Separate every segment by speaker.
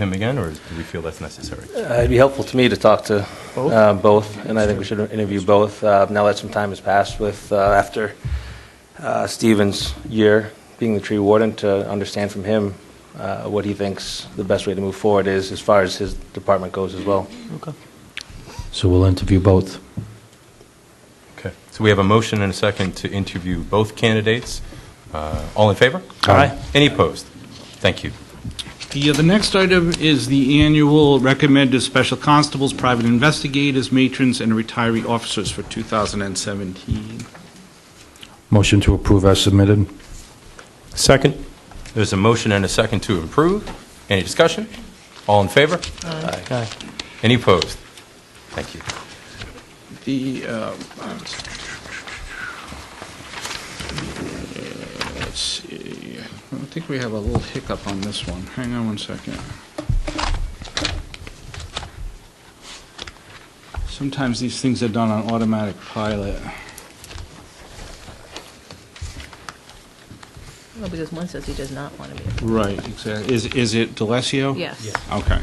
Speaker 1: him again, or do we feel that's necessary?
Speaker 2: Uh, It'd be helpful to me to talk to
Speaker 1: Both?
Speaker 2: uh, both, and I think we should interview both. Uh, Now that some time has passed with, uh, after uh, Stephen's year being the tree warden, to understand from him uh, what he thinks the best way to move forward is, as far as his department goes as well.
Speaker 3: So we'll interview both.
Speaker 1: Okay, so we have a motion and a second to interview both candidates. Uh, All in favor?
Speaker 3: Aye.
Speaker 1: Any opposed? Thank you.
Speaker 4: The, uh, the next item is the annual recommended special constables, private investigators, matrons, and retiree officers for 2017.
Speaker 3: Motion to approve as submitted.
Speaker 5: Second?
Speaker 1: There's a motion and a second to approve. Any discussion? All in favor?
Speaker 5: Aye.
Speaker 1: Any opposed? Thank you.
Speaker 4: The, uh, let's see, I think we have a little hiccup on this one. Hang on one second. Sometimes these things are done on automatic pilot.
Speaker 6: No, because one says he does not want to be.
Speaker 4: Right, exactly. Is, is it Delesio?
Speaker 6: Yes,
Speaker 4: Okay.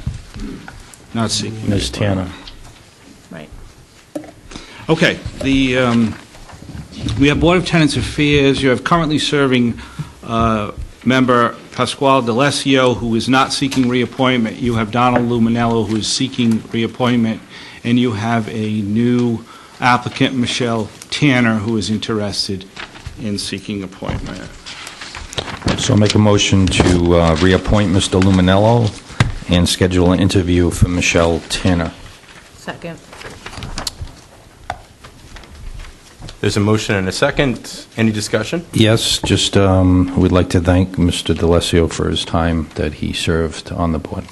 Speaker 4: Not seeking.
Speaker 3: Ms. Tanner.
Speaker 6: right.
Speaker 4: Okay, the, um, we have Board of Tenants Affairs, you have currently serving uh, member Pasquale Delesio, who is not seeking reappointment, you have Donald Luminello, who is seeking reappointment, and you have a new applicant, Michelle Tanner, who is interested in seeking appointment.
Speaker 3: So I'll make a motion to uh, reappoint Mr. Luminello and schedule an interview for Michelle Tanner.
Speaker 6: Second,
Speaker 1: There's a motion and a second. Any discussion?
Speaker 3: Yes, just, um, we'd like to thank Mr. DeLassio for his time that he served on the board.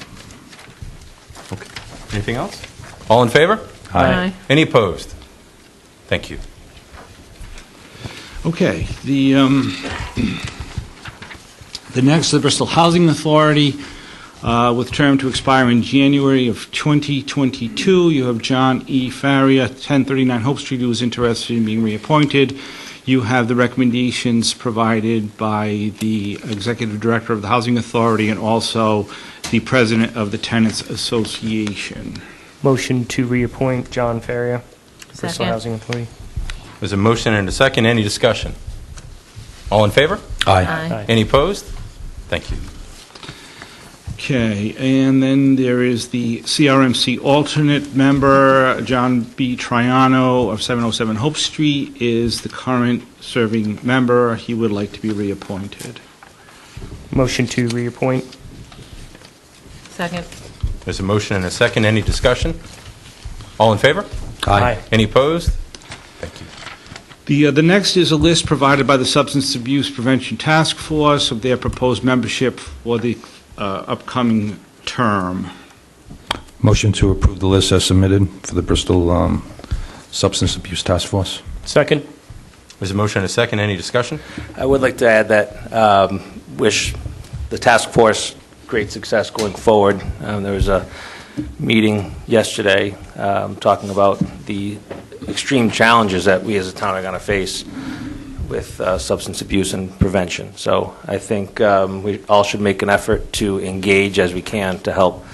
Speaker 1: Okay. Anything else? All in favor?
Speaker 6: Aye.
Speaker 1: Any opposed? Thank you.
Speaker 4: Okay, the, um, the next, the Bristol Housing Authority, uh, with term to expire in January of 2022. You have John E. Faria, 1039 Hope Street, who is interested in being reappointed. You have the recommendations provided by the Executive Director of the Housing Authority and also the President of the Tenants Association.
Speaker 5: Motion to reappoint John Faria, Bristol
Speaker 6: Second.
Speaker 5: Housing Authority.
Speaker 1: There's a motion and a second. Any discussion? All in favor?
Speaker 3: Aye.
Speaker 6: aye.
Speaker 1: Any opposed? Thank you.
Speaker 4: Okay, and then there is the CRMC alternate member, John B. Triano of 707 Hope Street is the current serving member. He would like to be reappointed.
Speaker 5: Motion to reappoint.
Speaker 6: Second,
Speaker 1: There's a motion and a second. Any discussion? All in favor?
Speaker 3: Aye.
Speaker 1: Any opposed? Thank you.
Speaker 4: The, uh, the next is a list provided by the Substance Abuse Prevention Task Force of their proposed membership for the uh, upcoming term.
Speaker 3: Motion to approve the list as submitted for the Bristol um, Substance Abuse Task Force.
Speaker 5: Second?
Speaker 1: There's a motion and a second. Any discussion?
Speaker 2: I would like to add that, um, wish the task force great success going forward. Um, There was a meeting yesterday um, talking about the extreme challenges that we as a town are going to face with uh, substance abuse and prevention. So I think um, we all should make an effort to engage as we can to help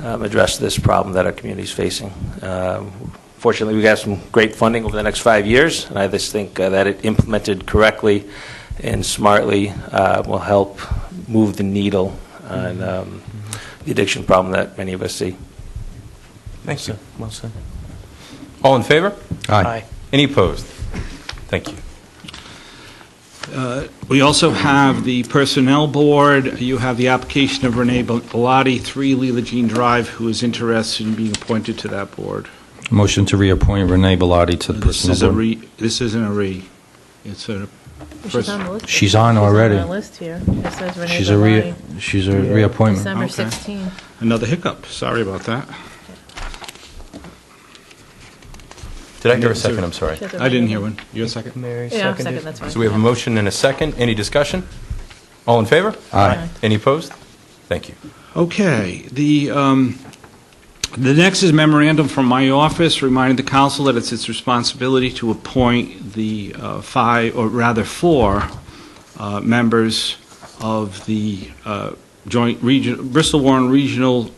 Speaker 2: um, address this problem that our community is facing. Um, Fortunately, we got some great funding over the next five years, and I just think uh, that it implemented correctly and smartly uh, will help move the needle on um, the addiction problem that many of us see.
Speaker 1: Thank you.
Speaker 5: Well said.
Speaker 1: All in favor?
Speaker 3: Aye.
Speaker 1: Any opposed? Thank you.
Speaker 4: We also have the Personnel Board. You have the application of Renee Bellotti, 3 Leela Jean Drive, who is interested in being appointed to that board.
Speaker 3: Motion to reappoint Renee Bellotti to the
Speaker 4: This
Speaker 3: Bristol
Speaker 4: is a
Speaker 3: Board.
Speaker 4: re, this isn't a re, it's a,
Speaker 6: she's on the list.
Speaker 3: She's on already.
Speaker 6: She's on our list here. It says Renee
Speaker 3: She's a re,
Speaker 6: Bellotti,
Speaker 3: she's a reappointment.
Speaker 6: December
Speaker 4: Okay.
Speaker 6: 16.
Speaker 4: another hiccup, sorry about that.
Speaker 1: Did I hear a second? I'm sorry.
Speaker 6: She has a
Speaker 4: I didn't
Speaker 6: Renee.
Speaker 4: hear one. You're second?
Speaker 5: Mary
Speaker 6: Yeah,
Speaker 5: seconded.
Speaker 6: second, that's fine.
Speaker 1: So we have a motion and a second. Any discussion? All in favor?
Speaker 3: Aye.
Speaker 1: Any opposed? Thank you.
Speaker 4: Okay, the, um, the next is memorandum from my office reminding the council that it's its responsibility to appoint the uh, five, or rather four, uh, members of the uh, Joint Region, Bristol Warren Regional